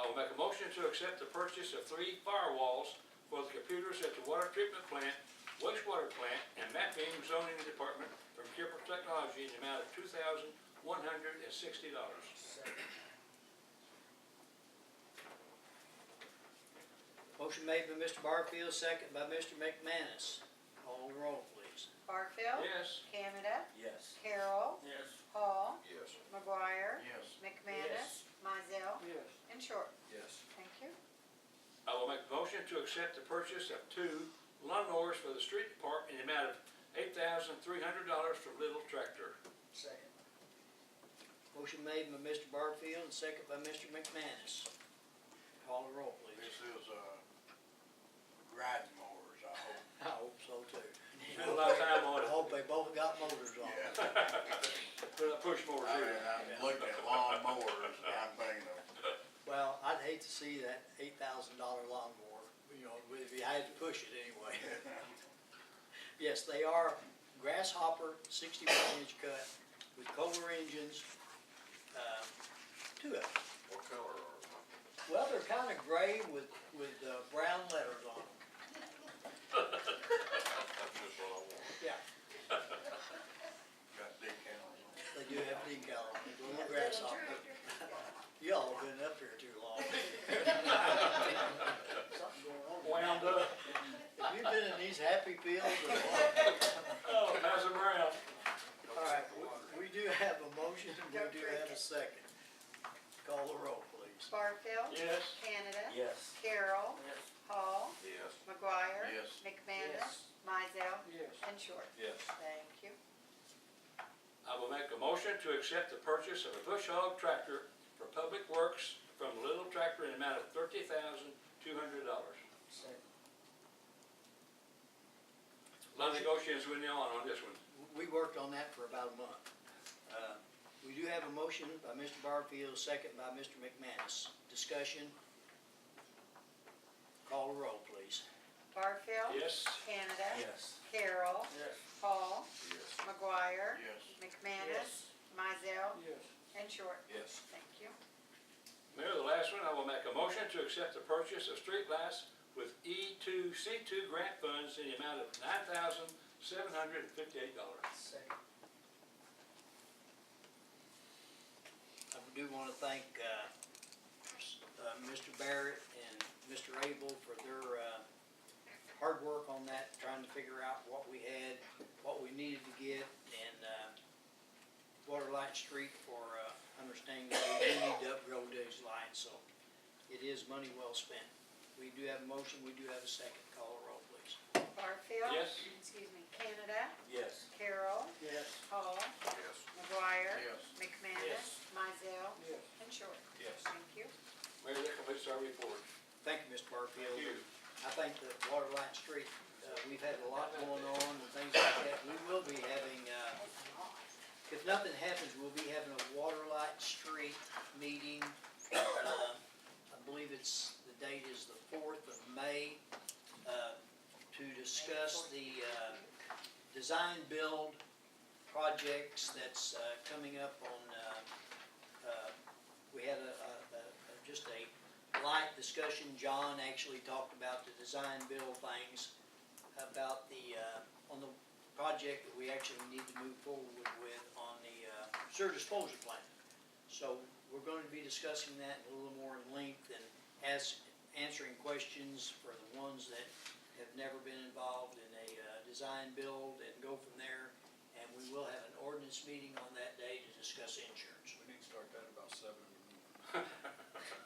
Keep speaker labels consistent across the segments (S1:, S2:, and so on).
S1: I'll make a motion to accept the purchase of three firewalls for the computers at the water treatment plant, wastewater plant, and mapping zoning department from Kipper Technology in the amount of two thousand one hundred and sixty dollars.
S2: Motion made by Mr. Barfield, second by Mr. McManus. Call the roll, please.
S3: Barfield.
S1: Yes.
S3: Canada.
S4: Yes.
S3: Carol.
S4: Yes.
S3: Hall.
S5: Yes.
S3: McGuire.
S4: Yes.
S3: McManus. Mizell.
S2: Yes.
S3: And Short.
S4: Yes.
S3: Thank you.
S1: I will make a motion to accept the purchase of two lawnmowers for the street department in the amount of eight thousand three hundred dollars from Little Tractor.
S2: Second. Motion made by Mr. Barfield, and second by Mr. McManus. Call the roll,
S4: This
S2: please.
S4: is, uh, riding mowers, I hope.
S2: I hope so too.
S1: Spent a lot of time on
S2: I
S1: it.
S2: hope they both got motors on.
S4: Yeah.
S1: Put a push mower
S4: I
S1: through
S4: mean,
S1: there.
S4: I'm looking at lawn mowers, and I'm thinking of,
S2: Well, I'd hate to see that eight thousand dollar lawnmower, you know, if you had to push it anyway. Yes, they are grasshopper, sixty-one inch cut with Kohler engines, uh, two of them.
S5: What color are they?
S2: Well, they're kind of gray with, with uh, brown letters on them.
S5: That's just what I want.
S2: Yeah.
S4: got decals
S2: They do have decal on them, little grasshopper. Y'all been up here too long. Something going on.
S1: Wound up,
S2: Have you been in these happy fields or what?
S1: oh, pass them around.
S2: All right, we- we do have a motion, and we do have a second. Call the roll, please.
S3: Barfield.
S1: Yes.
S3: Canada.
S4: on. Yes.
S3: Carol. Hall.
S5: Yes.
S3: McGuire.
S4: Yes.
S3: McManus. Mizell. And Short.
S5: Yes.
S3: Thank you.
S1: I will make a motion to accept the purchase of a bush hog tractor for public works from Little Tractor in the amount of thirty thousand two hundred dollars. A lot of negotiations went on on this one.
S2: We worked on that for about a month. Uh, We do have a motion by Mr. Barfield, second by Mr. McManus. Discussion. Call the roll, please.
S3: Barfield.
S1: Yes,
S3: Canada.
S4: Yes.
S3: Carol.
S4: Yes.
S3: Hall.
S5: Yes.
S3: McGuire.
S4: Yes.
S3: McManus. Mizell. And Short.
S5: Yes.
S3: Thank you.
S1: Mayor, the last one, I will make a motion to accept the purchase of street lights with E two, C two grant funds in the amount of nine thousand seven hundred and fifty-eight dollars.
S2: I do want to thank uh, s- uh, Mr. Barrett and Mr. Abel for their uh, hard work on that, trying to figure out what we had, what we needed to get, and uh, Waterlight Street for uh, understanding that we do need to upgrade those lines, so it is money well spent. We do have a motion, we do have a second. Call the roll, please.
S3: Barfield.
S1: Yes.
S3: Excuse me. Canada.
S4: Yes.
S3: Carol.
S2: Yes.
S3: Hall.
S5: Yes.
S3: McGuire.
S4: Yes.
S3: McManus. Mizell.
S2: Yes.
S3: And Short.
S5: Yes.
S3: Thank you.
S1: Mayor, that completes our report.
S2: Thank you, Mr. Barfield.
S1: Thank you.
S2: I think that Waterline Street, uh, we've had a lot going on and things like that. We will be having, uh, if nothing happens, we'll be having a Waterlight Street meeting. uh, I believe it's, the date is the fourth of May, uh, to discuss the uh, design build projects that's uh, coming up on, uh, uh, we had a, a- a- a- just a light discussion, John actually talked about the design build things, about the, uh, on the project that we actually need to move forward with on the uh, sewer disposal plan. So we're going to be discussing that a little more in length and as, answering questions for the ones that have never been involved in a uh, design build and go from there. And we will have an ordinance meeting on that day to discuss insurance.
S5: We need to start that about seven in the morning.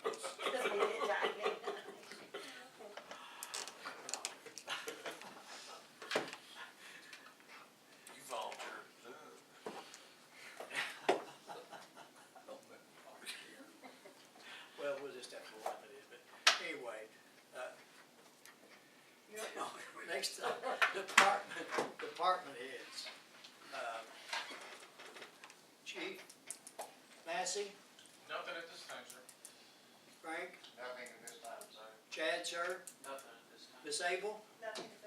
S4: You volunteer.
S2: Well, we'll just have to limit it, but anyway, uh, you know, next up, department, department heads. Uh, Chief, Massey,
S6: Nothing at this time, sir.
S2: Frank,
S6: Nothing at this time, sir.
S2: Chad, sir,
S6: Nothing at this time.
S2: Miss Abel,
S3: Nothing